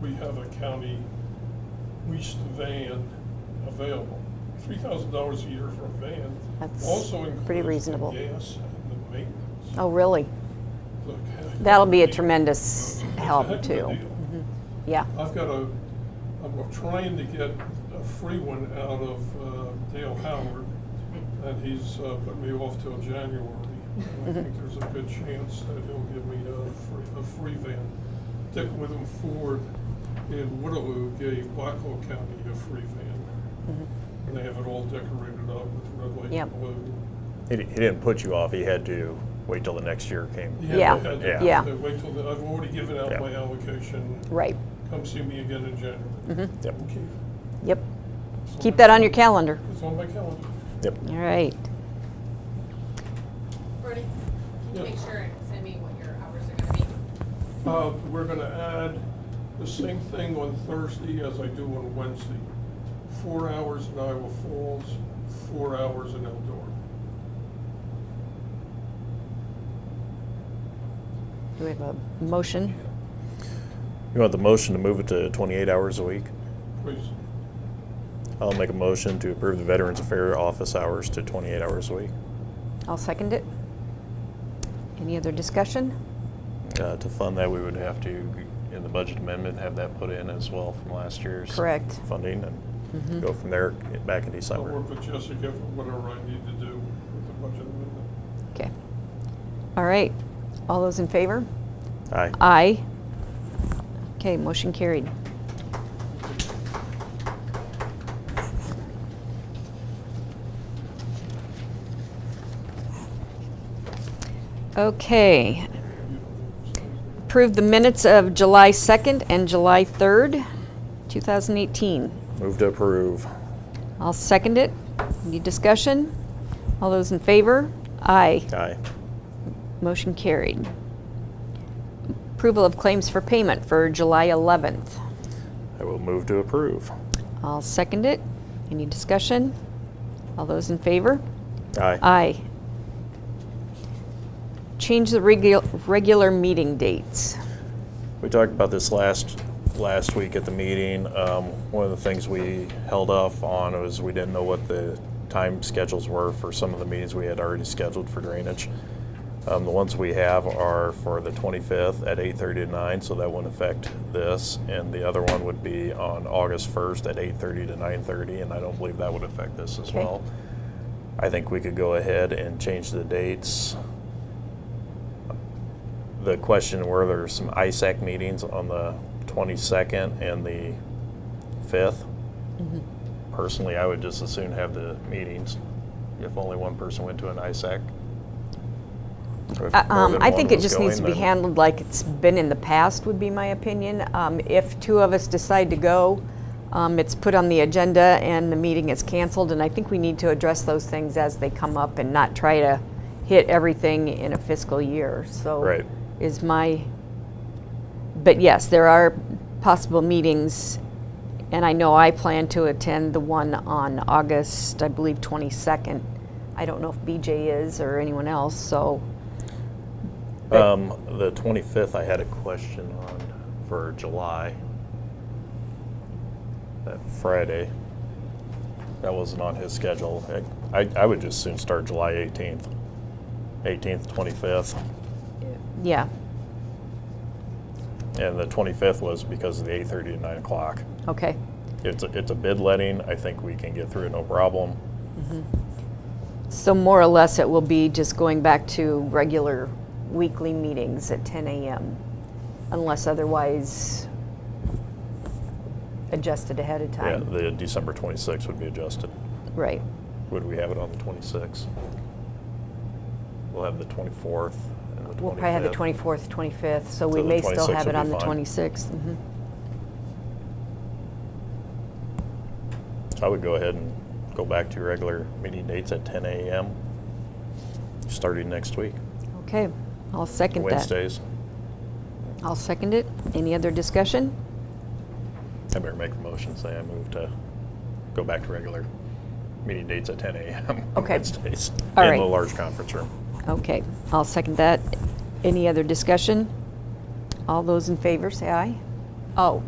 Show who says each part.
Speaker 1: we have a county leased van available. Three thousand dollars a year for a van
Speaker 2: That's
Speaker 1: also
Speaker 2: pretty
Speaker 1: includes.
Speaker 2: reasonable.
Speaker 1: The gas and the maintenance.
Speaker 2: Oh, really?
Speaker 1: Look, heck of
Speaker 2: That'll be a
Speaker 1: deal.
Speaker 2: tremendous
Speaker 1: It's a heck
Speaker 2: help
Speaker 1: of a
Speaker 2: too.
Speaker 1: deal.
Speaker 2: Yeah.
Speaker 1: I've got a, I'm trying to get a free one out of uh, Dale Howard, and he's uh, put me off till January. And I think there's a good chance that he'll give me a free, a free van. Dick Witham Ford in Waterloo gave Blackhawk County a free van.
Speaker 2: Mm-hmm.
Speaker 1: And they have it all decorated up with red, white,
Speaker 2: Yep.
Speaker 1: and blue.
Speaker 3: He, di- he didn't put you off. He had to wait till the next year came.
Speaker 2: Yeah.
Speaker 1: they had to-
Speaker 3: Yeah.
Speaker 2: Yeah.
Speaker 1: they Wait till, the- I've already given out
Speaker 3: Yeah.
Speaker 1: my allocation.
Speaker 2: Right.
Speaker 1: Come see me again in January.
Speaker 3: Yep.
Speaker 1: Okay.
Speaker 2: Yep. Mm-hmm. Keep that on your calendar.
Speaker 1: It's on my calendar.
Speaker 3: Yep.
Speaker 2: All right.
Speaker 4: Brody, can you
Speaker 1: Yeah.
Speaker 4: make sure and send me what your hours are gonna be?
Speaker 1: Uh, we're gonna add the same thing on Thursday as I do on Wednesday. Four hours in Iowa Falls, four hours in Eldora.
Speaker 2: Do we have a motion?
Speaker 3: You want the motion to move it to 28 hours a week?
Speaker 1: Please,
Speaker 3: I'll make a motion to approve the Veterans Affairs office hours to 28 hours a week
Speaker 2: I'll second it. Any other discussion?
Speaker 3: uh, to fund that. We would have to, in the budget amendment, have that put in as well from last year's
Speaker 2: Correct. Mm-hmm.
Speaker 3: funding and go from there get back in
Speaker 1: I'll
Speaker 3: December.
Speaker 1: work with Jessica for whatever I need to do with the budget amendment.
Speaker 2: Okay. All right. All those in favor?
Speaker 3: Aye.
Speaker 2: Aye. Okay, motion carried. Okay. Approve the minutes of July 2nd and July 3rd, 2018.
Speaker 3: Move to approve.
Speaker 2: I'll second it. Any discussion? All those in favor? Aye.
Speaker 3: Aye.
Speaker 2: Motion carried. Approval of claims for payment for July 11th.
Speaker 3: I will move to approve.
Speaker 2: I'll second it. Any discussion? All those in favor?
Speaker 3: Aye.
Speaker 2: Aye. Change the regu- regular meeting dates.
Speaker 3: We talked about this last, last week at the meeting. Um, One of the things we held off on was we didn't know what the time schedules were for some of the meetings we had already scheduled for drainage. Um, The ones we have are for the 25th at 8:30 to 9, so that wouldn't affect this. And the other one would be on August 1st at 8:30 to 9:30, and I don't believe that would affect this as
Speaker 2: Okay.
Speaker 3: well. I think we could go ahead and change the dates the question were there's some ISAC meetings on the 22nd and the 5th.
Speaker 2: Mm-hmm.
Speaker 3: Personally, I would just as soon have the meetings if only one person went to an ISAC. Or if
Speaker 2: Uh,
Speaker 3: more
Speaker 2: um,
Speaker 3: than
Speaker 2: I
Speaker 3: one
Speaker 2: think it
Speaker 3: was
Speaker 2: just needs to
Speaker 3: going,
Speaker 2: be
Speaker 3: then-
Speaker 2: handled like it's been in the past, would be my opinion. Um, If two of us decide to go, um, it's put on the agenda and the meeting is canceled, and I think we need to address those things as they come up and not try to hit everything in a fiscal year, so.
Speaker 3: Right.
Speaker 2: Is my, but yes, there are possible meetings, and I know I plan to attend the one on August, I believe, 22nd. I don't know if BJ is or anyone else, so.
Speaker 3: Um, the 25th, I had a question on for July. That Friday. That wasn't on his schedule. I, I- I would just soon start July 18th. 18th, 25th.
Speaker 2: Yeah,
Speaker 3: And the 25th was because of the 8:30 to 9 o'clock.
Speaker 2: okay.
Speaker 3: It's, a- it's a bid letting. I think we can get through it no problem.
Speaker 2: So more or less, it will be just going back to regular weekly meetings at 10 a.m. unless otherwise adjusted ahead of
Speaker 3: Yeah,
Speaker 2: time.
Speaker 3: the December 26th would be adjusted.
Speaker 2: Right,
Speaker 3: Would we have it on the 26th? We'll have the 24th and the 25th.
Speaker 2: we'll probably have the 24th, 25th, so we
Speaker 3: So the
Speaker 2: may still
Speaker 3: 26th
Speaker 2: have
Speaker 3: would
Speaker 2: it
Speaker 3: be
Speaker 2: on the
Speaker 3: fine.
Speaker 2: 26th. Mhm.
Speaker 3: I would go ahead and go back to your regular meeting dates at 10 a.m. starting next week,
Speaker 2: Mm-hmm. Okay, I'll second that.
Speaker 3: Wednesdays.
Speaker 2: I'll second it. Any other discussion?
Speaker 3: I better make a motion, say I move to go back to regular meeting dates at 10 a.m. on
Speaker 2: Okay.
Speaker 3: Wednesdays.
Speaker 2: All
Speaker 3: In
Speaker 2: right.
Speaker 3: the large conference room.
Speaker 2: Okay, I'll second that. Any other discussion? All those in favor, say aye. Oh,